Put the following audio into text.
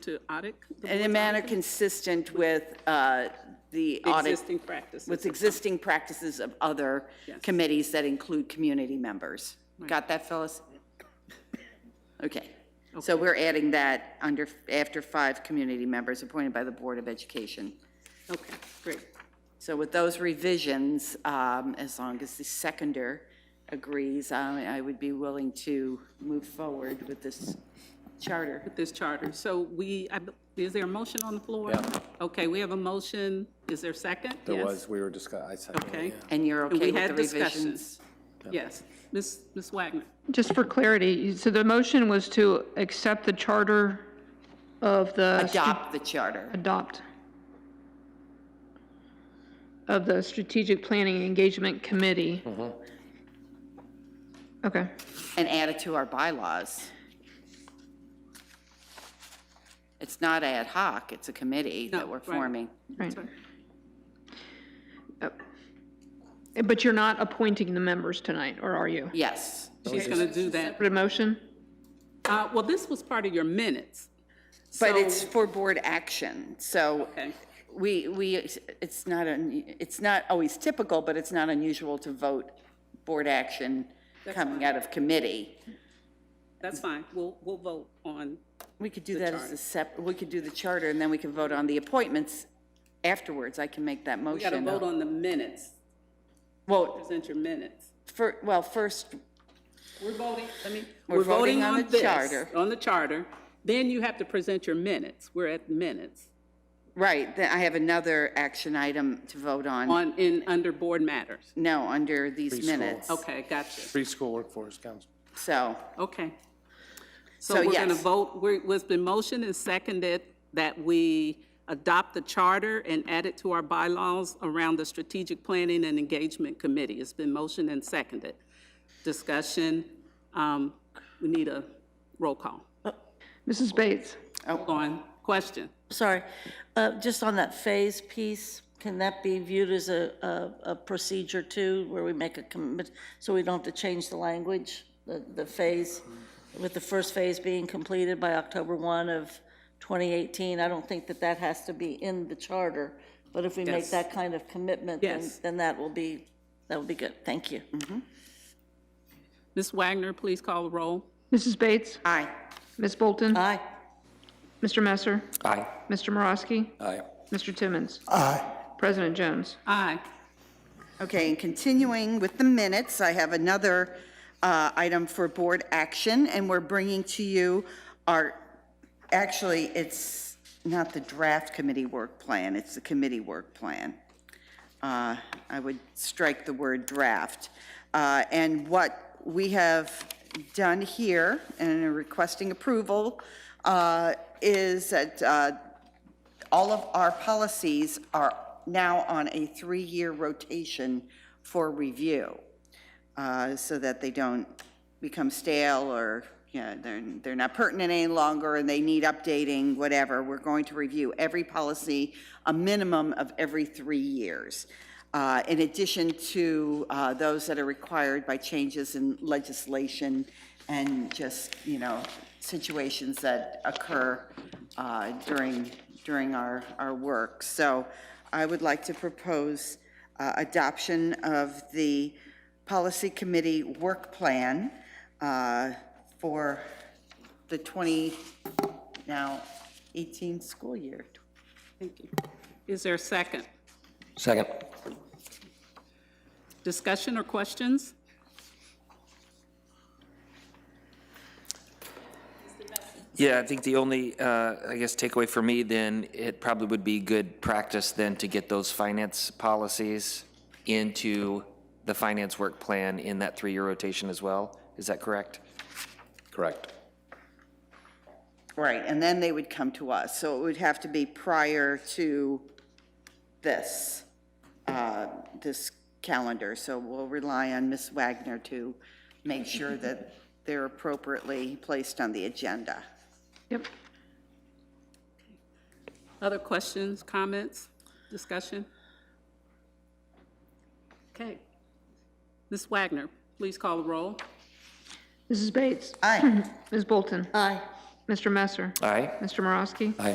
to audit? the In a board's manner audit? consistent with uh, the audit, Existing practices. with existing practices of other committees that include community members. Got that, Phyllis? Okay. So we're adding that under, after five community members appointed by the Board of Education. Okay, great. So with those revisions, um, as long as the seconder agrees, I I would be willing to move forward with this charter. This charter. So we, I b- is there a motion on the floor? Yeah. Okay, we have a motion. Is there a second? There Yes. was, we were discussing, I said. Okay. And you're And okay we with the had revisions? discussions. Yes. Ms. Ms. Wagner? Just for clarity, so the motion was to accept the charter of the. stra- Adopt the charter. Adopt. Of the Strategic Planning Engagement Committee. Okay, and add it to our bylaws. It's not ad hoc, it's a committee No, that we're right. forming. right. Sorry. Uh, But you're not appointing the members tonight, or are you? Yes, She's going to do that. For the motion? Uh, Well, this was part of your minutes. but So- it's for board action, so Okay. we, we, it's not, un- it's not always typical, but it's not unusual to vote board action coming out of committee. That's fine. We'll, we'll vote on, We could do that as a sep, we could do the charter, and then we can vote on the appointments afterwards. I can make that motion. we got to vote on the minutes. Well, Present your minutes. for, well, first, We're voting, I mean, We're we're voting voting on on the this, charter. on the charter. Then you have to present your minutes. We're at minutes Right, then I have another action item to vote on. on, in, under board matters. No, under these Preschool. minutes, Okay, gotcha. Preschool workforce council. so, Okay. So, So we're going to yes. vote, we're, was been motioned and seconded that we adopt the charter and add it to our bylaws around the Strategic Planning and Engagement Committee. It's been motioned and seconded. Discussion, um, we need a roll call. Mrs. Bates? Oh. Hold on, question. Sorry, uh, just on that phase piece, can that be viewed as a, a- a procedure too, where we make a commit, so we don't have to change the language? The, the phase, with the first phase being completed by October 1 of 2018, I don't think that that has to be in the charter, but if we make Yes. that kind of commitment, then, Yes. then that will be, that will be good, thank you. Ms. Wagner, please call the roll. Mrs. Bates? aye. Ms. Bolton? Aye, Mr. Messer? Aye. Mr. Morosky? Aye. Mr. Timmons? Aye. President Jones? Aye. Okay, and continuing with the minutes, I have another uh, item for board action, and we're bringing to you our, actually, it's not the draft committee work plan, it's the committee work plan. Uh, I would strike the word draft. Uh, And what we have done here, and are requesting approval, uh, is that uh, all of our policies are now on a three-year rotation for review, uh, so that they don't become stale or, you know, they're, they're not pertinent any longer and they need updating, whatever. We're going to review every policy, a minimum of every three years. Uh, In addition to uh, those that are required by changes in legislation and just, you know, situations that occur uh, during, during our, our work. So I would like to propose uh, adoption of the Policy Committee Work Plan uh, for the 20, now 18 school year. Thank you. Is there a second? Second. Discussion or questions? Yeah, I think the only, uh, I guess, takeaway for me then, it probably would be good practice then to get those finance policies into the finance work plan in that three-year rotation as well. Is that correct? Correct. Right, and then they would come to us. So it would have to be prior to this, uh, this calendar. So we'll rely on Ms. Wagner to make sure that they're appropriately placed on the agenda. Yep. Other questions, comments, discussion? Okay. Ms. Wagner, please call the roll. Mrs. Bates? Aye. Ms. Bolton? aye, Mr. Messer? Aye? Mr. Morosky?